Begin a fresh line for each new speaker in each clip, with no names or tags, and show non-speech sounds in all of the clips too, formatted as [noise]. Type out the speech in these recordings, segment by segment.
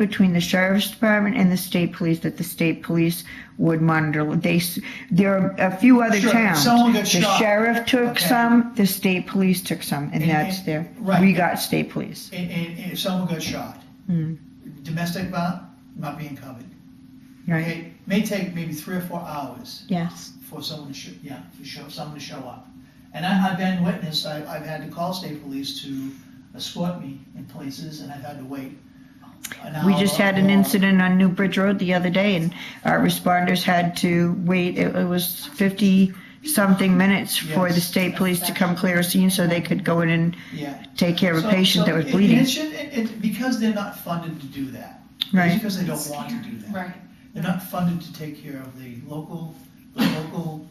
between the sheriff's department and the state police, that the state police would monitor. They, s- there are a few other
Sure,
towns.
someone got
The
shot.
sheriff took
Okay.
some, the state police took some, and
And-
that's there.
right.
We got state police.
and, and, and if someone got shot,
Mm,
domestic violence not being covered.
Right,
It may take maybe three or four hours
yes,
for someone to show, yeah, for show, someone to show up. And I, I've been witness, I, I've had to call state police to escort me in places and I've had to wait. an
We
hour
just had an
or-
incident on New Bridge Road the other day, and our responders had to wait, it it was 50-something minutes for the
Yes.
state police to come clear a scene so they could go in and
Yeah.
take care of a
So-
patient
so
that was
it- and
bleeding.
It should, it, it, because they're not funded to do that. It's
Right,
Because they don't want to do that.
Right.
They're not funded to take care of the local, the local,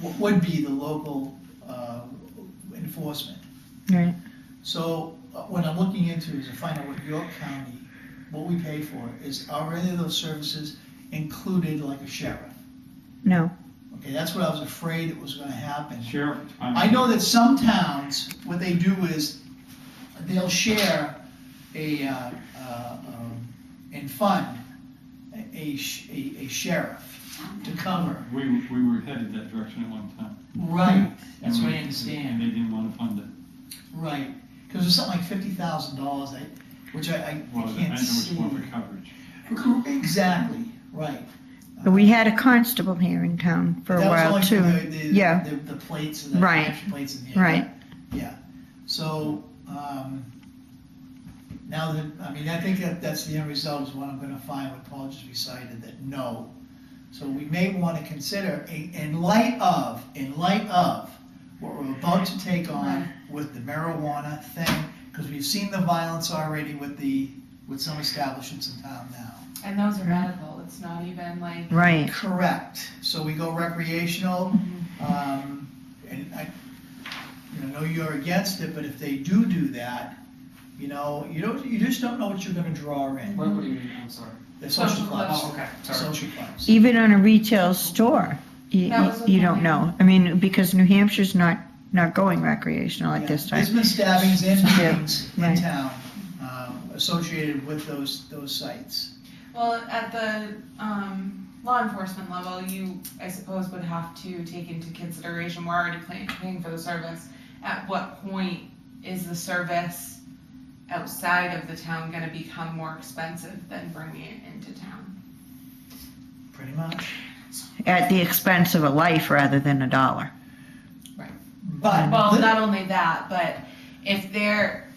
what would be the local, uh, enforcement.
right,
So uh, what I'm looking into is to find out what York County, what we pay for, is are any of those services included like a sheriff?
no,
Okay, that's what I was afraid it was gonna happen.
Sheriff,
I
I'm,
know that some towns, what they do is, they'll share a, uh, uh, um, and fund a- a, sh- a a sheriff to cover.
we, we were headed that direction at one time.
Right. That's
And
what
we-
I understand.
And they didn't want to fund it.
Right, because it's something like fifty thousand dollars, I, which I, I
Well, I know
can't
it's
see.
more for coverage.
Exactly, right.
But we had a constable here in town for a
That was
while
only for
too.
the- the-
Yeah.
The, the plates and the
Right.
extra plates in here.
Right,
So, um, now that, I mean, I think that that's the end result is what I'm gonna find what Paul just recited, that no. So we may wanna consider, in, in light of, in light of what we're about to take on with the marijuana thing, because we've seen the violence already with the, with some establishments in town now.
And those are medical, it's not even like,
right.
Correct. So we go recreational, um, and I, you know, know you're against it, but if they do do that, you know, you don't, you just don't know what you're gonna draw in.
What, what do you mean? I'm sorry.
The social
Social
clubs,
clubs.
Oh, okay. Sorry.
social clubs.
Even on a retail store, you,
That was
you
the
don't
thing.
know. I mean, because New Hampshire's not, not going recreational at
Yeah.
this
There's
time.
been stabbings and
Yeah,
shootings in
right.
town, um, associated with those, those sites.
well, at the, um, law enforcement level, you, I suppose, would have to take into consideration, we're already paying, paying for the service. At what point is the service outside of the town gonna become more expensive than bringing it into town?
Pretty much.
At the expense of a life rather than a dollar.
But.
Well, not only that, but if there,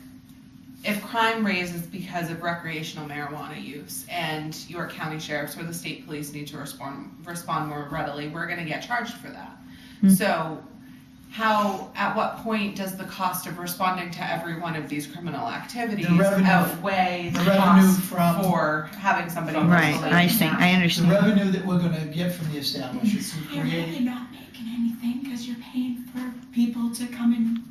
if crime raises because of recreational marijuana use and York County sheriffs or the state police need to respond, respond more readily, we're gonna get charged for that.
Hmm.
So how, at what point does the cost of responding to every one of these criminal activities
revenue-
outweigh the
the revenue
cost
from-
for having somebody?
From
Right,
legally
I see,
now?
I
The
understand.
revenue that we're gonna get from the establishments,
So
we
You're
create,
really not making anything because you're paying for people to come in.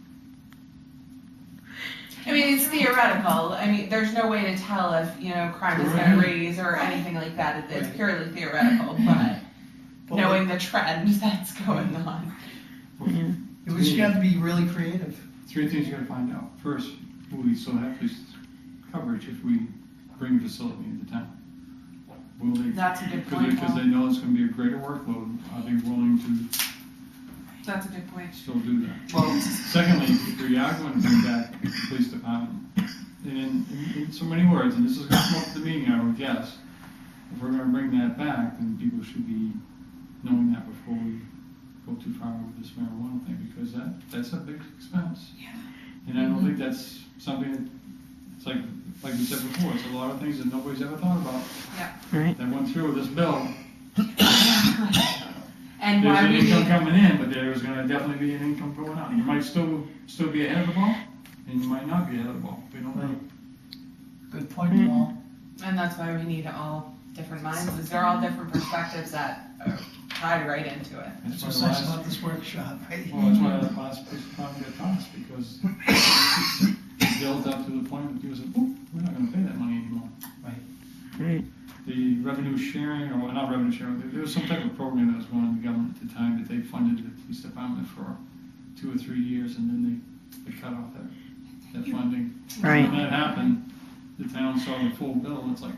I mean, it's theoretical. I mean, there's no way to tell if, you know, crime is gonna raise or anything like that. It- It's
Right.
purely theoretical, but
[laughs] but
knowing the trend that's going on.
we- we just have to be really creative.
Three things you gotta find out. First, will we still have police coverage if we bring a facility into town? Will they,
That's a good
because they,
point,
because they
Paul.
know it's gonna be a greater workload, are they willing to
That's a good point.
still do that?
Well,
Secondly, if we are going to bring back the police department, and in, in so many words, and this is gonna come up at the meeting, I would guess, if we're gonna bring that back, then people should be knowing that before we go too far with this marijuana thing, because that, that's a big expense.
Yeah.
And I don't think that's something that, it's like, like we said before, it's a lot of things that nobody's ever thought about.
Right.
That went through this bill,
[laughs] And
there's
why
an
we
income
need,
coming in, but there's gonna definitely be an income going out. You might still, still be ahead of the ball, and you might not be ahead of the ball. We don't know.
Good
Mm-hmm.
point, Paul.
and that's why we need all different minds, is they're all different perspectives that are tied right into it.
That's
That's why
what's
the
nice
last,
about this workshop, right?
[laughs] well, that's why the last piece of property got tossed, [laughs] because it built up to the point that people said, "Ooh, we're not gonna pay that money anymore.
Right.
The revenue sharing, or not revenue sharing, there- there was some type of program that was going on in the government at the time that they funded the police department for two or three years, and then they, they cut off that, that funding.
Right.
When that happened, the town saw the full bill, it's like,